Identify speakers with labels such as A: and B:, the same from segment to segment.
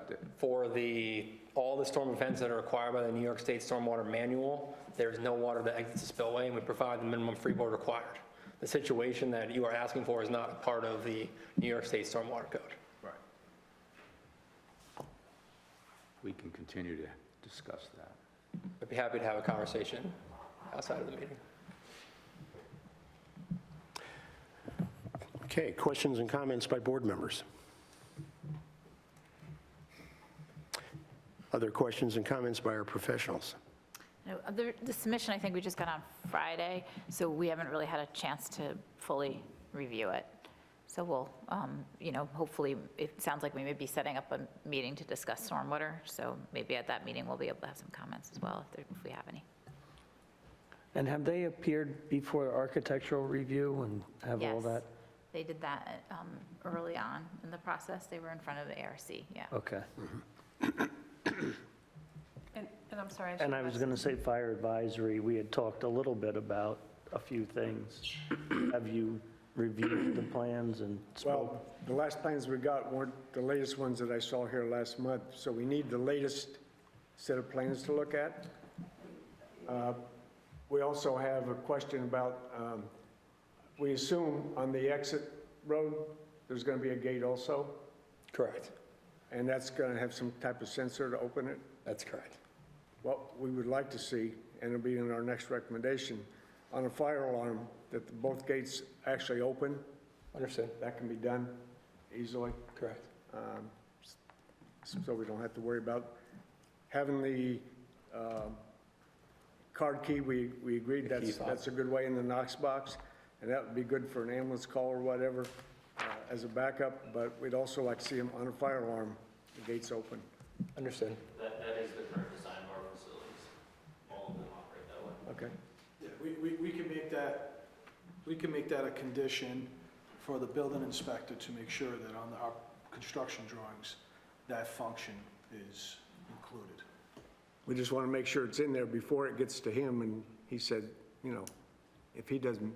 A: accepted.
B: for the, all the storm events that are required by the New York State Stormwater Manual, there is no water that exits the spillway, and we provide the minimum freeboard required. The situation that you are asking for is not a part of the New York State Stormwater Code.
A: Right. We can continue to discuss that.
B: I'd be happy to have a conversation outside of the meeting.
C: Okay, questions and comments by board members? Other questions and comments by our professionals?
D: No, uh, The the submission, I think we just got on Friday, so we haven't really had a chance to fully review it. So we'll, um, you know, hopefully, it sounds like we may be setting up a meeting to discuss stormwater, so maybe at that meeting, we'll be able to have some comments as well, if there- if we have any.
E: And have they appeared before architectural review and have all
D: Yes,
E: that?
D: They did that um, early on in the process, they were in front of the ARC, yeah.
E: Okay.
F: And, and I'm sorry.
E: And I was going to say fire advisory, we had talked a little bit about a few things. Have you reviewed the plans and spoke?
G: Well, the last plans we got weren't the latest ones that I saw here last month, so we need the latest set of plans to look at. Uh, We also have a question about, um, we assume on the exit road, there's going to be a gate also,
B: Correct.
G: and that's going to have some type of sensor to open it.
B: That's correct.
G: What we would like to see, and it'll be in our next recommendation, on a fire alarm, that both gates actually open,
B: Understood.
G: that can be done easily.
B: Correct.
G: um, so we don't have to worry about having the um, card key, we, we agreed that's,
B: fob.
G: that's a good way in the Knox box, and that would be good for an ambulance call or whatever uh, as a backup, but we'd also like to see them on a fire alarm, the gates open.
B: Understood.
H: That, that is the current design of our facilities. All of them operate that way.
G: Okay,
I: Yeah, we, we, we can make that, we can make that a condition for the building inspector to make sure that on the- our construction drawings, that function is included.
G: we just want to make sure it's in there before it gets to him, and he said, you know, if he doesn't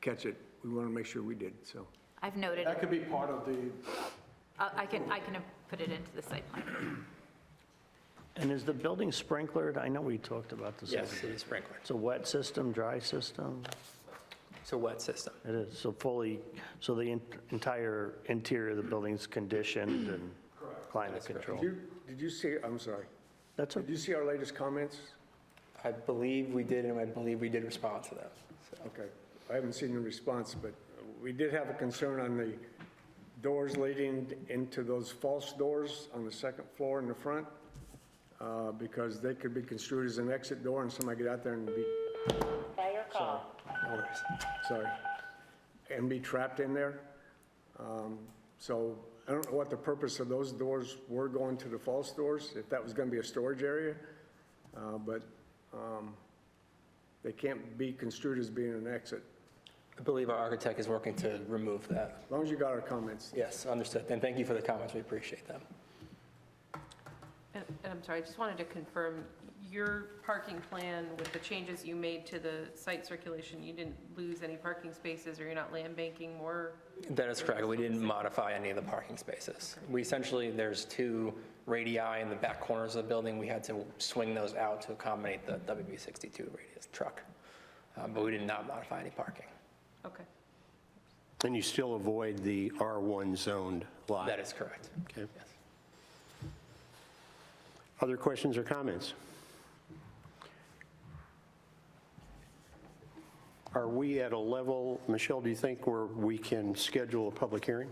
G: catch it, we want to make sure we did, so.
D: I've noted, Uh,
I: That could be part of the,
D: I I can, I can put it into the site plan.
E: And is the building sprinklered? I know we talked about this.
B: Yes, it is sprinkled.
E: It's a wet system, dry system?
B: It's a wet system.
E: It is, so fully, so the en- entire interior of the building's conditioned and climate
G: Did
E: controlled?
G: you, did you see, I'm sorry,
E: That's,
G: did
E: okay.
G: you see our latest comments?
B: I believe we did, and I believe we did respond to that. So
G: Okay, I haven't seen the response, but we did have a concern on the doors leading into those false doors on the second floor in the front, uh, because they could be construed as an exit door and somebody get out there and be,
B: no worries.
G: sorry, and be trapped in there. Um, So I don't know what the purpose of those doors were going to the false doors, if that was going to be a storage area, uh, but um, they can't be construed as being an exit.
B: I believe our architect is working to remove that.
G: As long as you got our comments.
B: Yes, understood. And thank you for the comments. We appreciate them.
F: And and I'm sorry, I just wanted to confirm, your parking plan with the changes you made to the site circulation, you didn't lose any parking spaces or you're not land banking more?
B: That is correct. We didn't modify any of the parking spaces. We essentially, there's two radii in the back corners of the building. We had to swing those out to accommodate the WB62 radius truck. Uh, But we did not modify any parking.
F: Okay.
C: And you still avoid the R1 zoned lot?
B: That is correct.
C: Okay. Other questions or comments? Are we at a level, Michelle, do you think where we can schedule a public hearing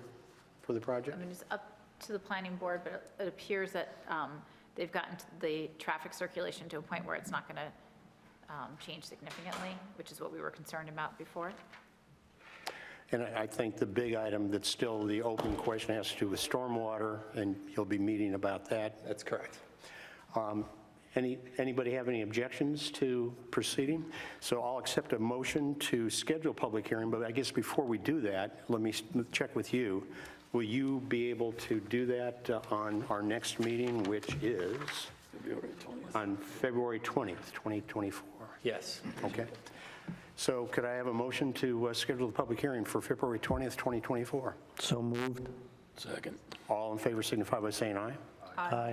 C: for the
D: I
C: project?
D: mean, it's up to the planning board, but it- it appears that um, they've gotten t- the traffic circulation to a point where it's not going to change significantly, which is what we were concerned about before.
C: And I I think the big item that's still the open question has to do with stormwater, and you'll be meeting about that.
B: That's correct.
C: Um, Any, anybody have any objections to proceeding? So I'll accept a motion to schedule a public hearing, but I guess before we do that, let me s- check with you. Will you be able to do that uh, on our next meeting, which is? On February 20th, 2024?
B: Yes.
C: Okay. So could I have a motion to uh, schedule the public hearing for February 20th, 2024?
E: so moved?
C: All in favor signify by saying aye. Aye.
F: Aye.
E: Aye.